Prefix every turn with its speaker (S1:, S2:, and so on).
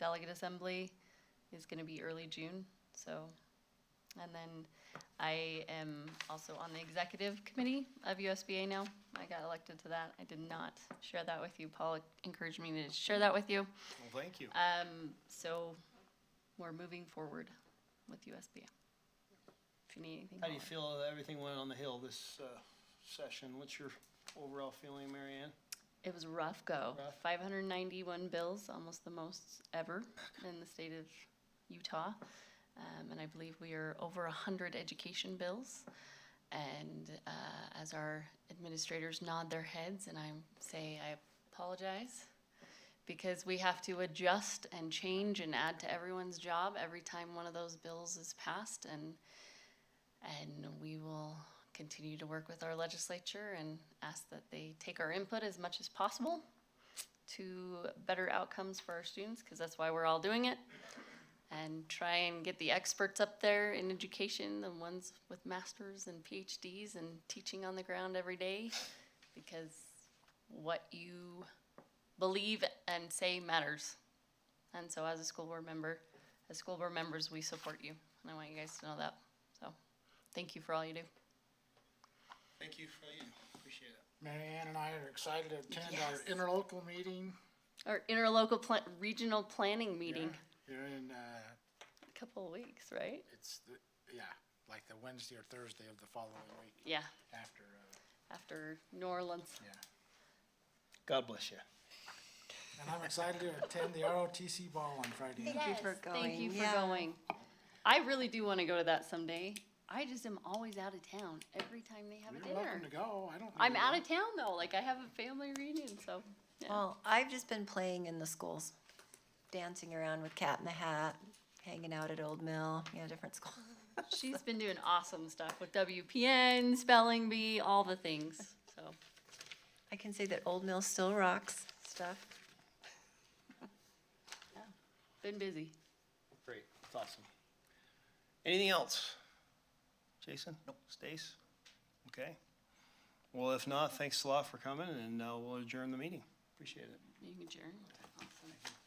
S1: delegate assembly is going to be early June, so. And then I am also on the executive committee of USBA now. I got elected to that. I did not share that with you. Paul encouraged me to share that with you.
S2: Well, thank you.
S1: Um, so we're moving forward with USBA. If you need anything.
S2: How do you
S1: Paul.
S2: feel that everything went on the Hill this uh, session? What's your overall feeling, Mary Ann?
S1: It was a rough go.
S2: Rough.
S1: 591 bills, almost the most ever in the state of Utah. Um, and I believe we are over 100 education bills. And uh, as our administrators nod their heads and I say, I apologize, because we have to adjust and change and add to everyone's job every time one of those bills is passed. And and we will continue to work with our legislature and ask that they take our input as much as possible to better outcomes for our students, because that's why we're all doing it. And try and get the experts up there in education, the ones with masters and PhDs and teaching on the ground every day, because what you believe and say matters. And so as a school board member, as school board members, we support you, and I want you guys to know that, so. Thank you for all you do.
S2: Thank you for you. Appreciate it.
S3: Mary Ann and I are excited to attend
S1: Yes.
S3: our interlocal meeting
S1: Our interlocal pla- regional planning meeting,
S3: here in, uh,
S1: a couple of weeks, right?
S3: it's, the yeah, like the Wednesday or Thursday of the following week
S1: Yeah,
S3: after, uh,
S1: after New Orleans.
S3: yeah.
S2: God bless you.
S3: And I'm excited to attend the ROTC ball on Friday night.
S1: Thank you for
S4: Yes,
S1: Thank you
S4: going,
S1: for
S4: yeah.
S1: going. I really do want to go to that someday. I just am always out of town every time they have a
S3: You're welcome
S1: dinner.
S3: to go, I don't.
S1: I'm
S3: know.
S1: out of town though, like I have a family reunion, so. yeah.
S4: Well, I've just been playing in the schools, dancing around with Cat in the Hat, hanging out at Old Mill, you know, different schools.
S1: She's been doing awesome stuff with WPN, spelling bee, all the things, so.
S4: I can say that Old Mill still rocks stuff.
S1: Been busy.
S2: Great. It's awesome. Anything else? Jason? Nope. Stace? Okay. Well, if not, thanks a lot for coming and uh, we'll adjourn the meeting. Appreciate it.
S1: You can adjourn. Awesome.